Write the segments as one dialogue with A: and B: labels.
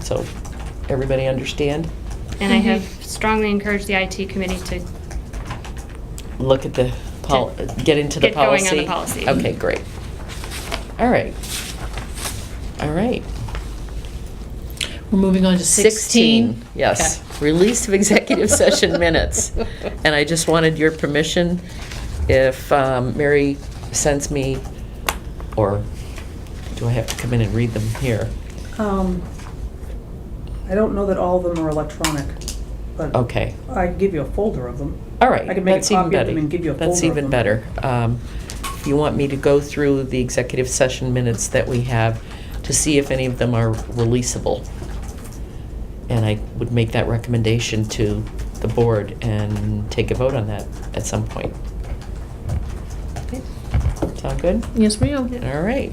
A: so everybody understand.
B: And I have
C: Mm-hmm.
B: strongly encouraged the IT committee to,
A: Look at the, pol- get into the
B: Get going on the
A: policy.
B: policy.
A: Okay, great. All right. All right.
C: We're moving on to 16.
A: Yes,
C: Okay.
A: release of executive session minutes. And I just wanted your permission if um, Mary sends me, or do I have to come in and read them here?
D: Um, I don't know that all of them are electronic, but.
A: Okay,
D: I can give you a folder of them.
A: all right.
D: I can make a
A: that's even
D: copy of them
A: better.
D: and give you a
A: That's
D: folder of
A: even
D: them.
A: better. Um, If you want me to go through the executive session minutes that we have to see if any of them are releasable. And I would make that recommendation to the board and take a vote on that at some point. Sound good?
C: Yes, ma'am.
A: All right.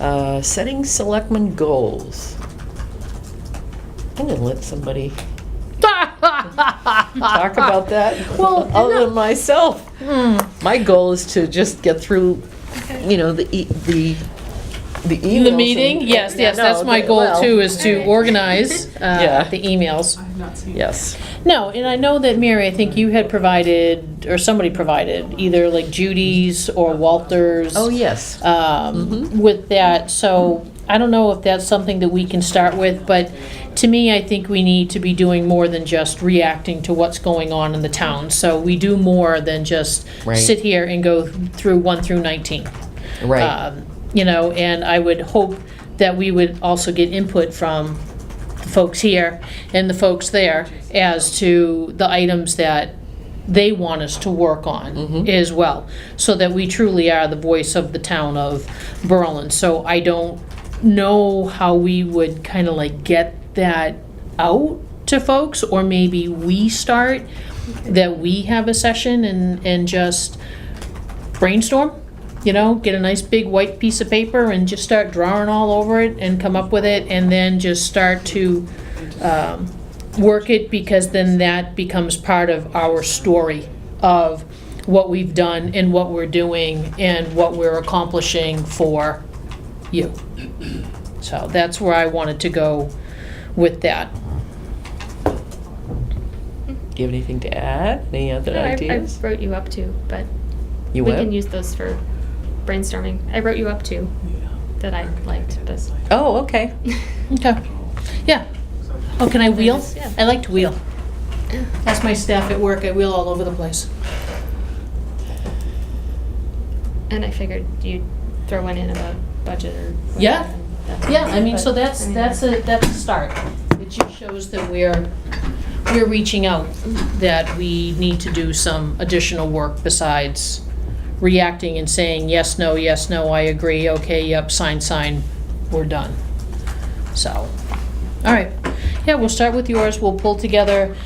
A: Uh, Setting selectmen goals. I'm gonna let somebody talk about that,
C: Well,
A: other
C: no.
A: than myself.
C: Hmm.
A: My goal is to just get through, you know, the, e- the, the emails.
C: The meeting?
A: and-
C: Yes, yes,
A: No,
C: that's my
A: the-
C: goal
A: well,
C: too, is to organize
A: Yeah.
C: uh, the emails.
A: Yes,
C: No, and I know that Mary, I think you had provided, or somebody provided, either like Judy's or Walter's.
A: oh, yes. Mhm.
C: um, with that, so I don't know if that's something that we can start with, but to me, I think we need to be doing more than just reacting to what's going on in the town. So we do more than just
A: Right.
C: sit here and go through 1 through 19.
A: Right,
C: Um, You know, and I would hope that we would also get input from the folks here and the folks there as to the items that they want us to work on
A: Mhm.
C: as well, so that we truly are the voice of the town of Berlin. So I don't know how we would kind of like get that out to folks, or maybe we start, that we have a session and, and just brainstorm, you know, get a nice big white piece of paper and just start drawing all over it and come up with it and then just start to um, work it because then that becomes part of our story of what we've done and what we're doing and what we're accomplishing for you. So that's where I wanted to go with that.
A: do you have anything to add, any other
B: No, I I
A: ideas?
B: wrote you up to, but
A: You
B: we
A: will?
B: can use those for brainstorming. I wrote you up to that I liked, but.
A: Oh, okay,
C: Okay. Yeah. Oh, can I wheel?
B: Yeah.
C: I like to wheel. That's my staff at work. I wheel all over the place.
B: And I figured you'd throw one in about budget or. whatever,
C: Yeah.
B: and that's-
C: Yeah, I mean, so
B: but, I
C: that's,
B: mean,
C: that's a, that's a start. It just shows that we're, we're reaching out, that we need to do some additional work besides reacting and saying, yes, no, yes, no, I agree, okay, yep, sign, sign, we're done. So, all right. Yeah, we'll start with yours. We'll pull together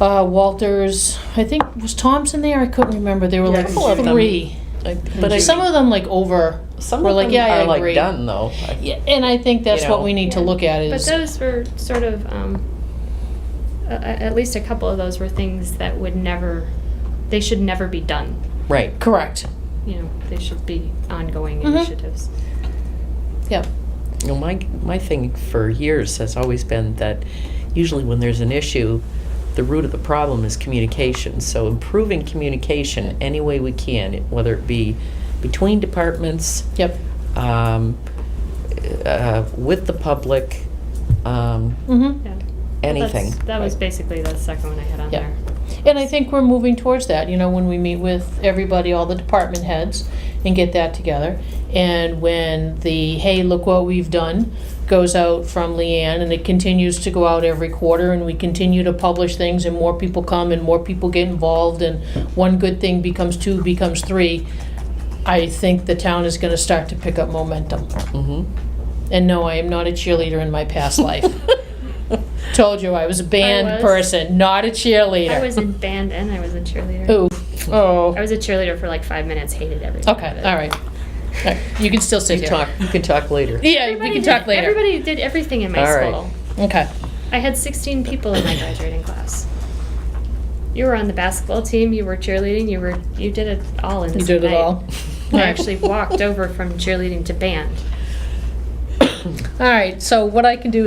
C: uh, Walters, I think, was Tom's in there? I couldn't remember. There were
D: Yeah, I
C: like
D: think she was.
C: three.
A: I- but I,
C: Some of them like over,
A: some
C: were
A: of
C: like,
A: them
C: yeah, I
A: are like
C: agree.
A: done, though. I-
C: Yeah, and I think that's
A: You know.
C: what we need to
B: Yeah.
C: look at
B: But
C: is,
B: those were sort of, um, a- a- at least a couple of those were things that would never, they should never be done.
A: Right,
C: correct,
B: You know, they should be ongoing
C: Mhm.
B: initiatives.
C: yep.
A: You know, my, my thing for years has always been that usually when there's an issue, the root of the problem is communication. So improving communication any way we can, whether it be between departments,
C: Yep.
A: um, uh, with the public, um,
C: hmm
B: Yeah. Well, that's-
A: anything.
B: That was basically the second one I had on
C: Yeah.
B: there.
C: And I think we're moving towards that, you know, when we meet with everybody, all the department heads, and get that together. And when the, hey, look what we've done, goes out from Leanne, and it continues to go out every quarter, and we continue to publish things, and more people come, and more people get involved, and one good thing becomes two, becomes three, I think the town is gonna start to pick up momentum.
A: hmm
C: And no, I am not a cheerleader in my past life. Told you I was a band
B: I was.
C: person, not a cheerleader.
B: I was in band and I was a cheerleader.
C: Oof. Oh.
B: I was a cheerleader for like five minutes, hated everything.
C: Okay,
B: about it.
C: all right. All right, You can still sit
A: You,
C: here.
A: talk, you can talk later.
C: Yeah, we
B: Everybody
C: can
B: did-
C: talk later.
B: Everybody did everything in my
A: All right.
B: school.
C: Okay.
B: I had 16 people in my graduating class. You were on the basketball team. You were cheerleading. You were you did it all in.
C: You
B: this
C: did it
B: night.
C: all.
B: I actually walked over from cheerleading to band.
C: All right, so what I can do is.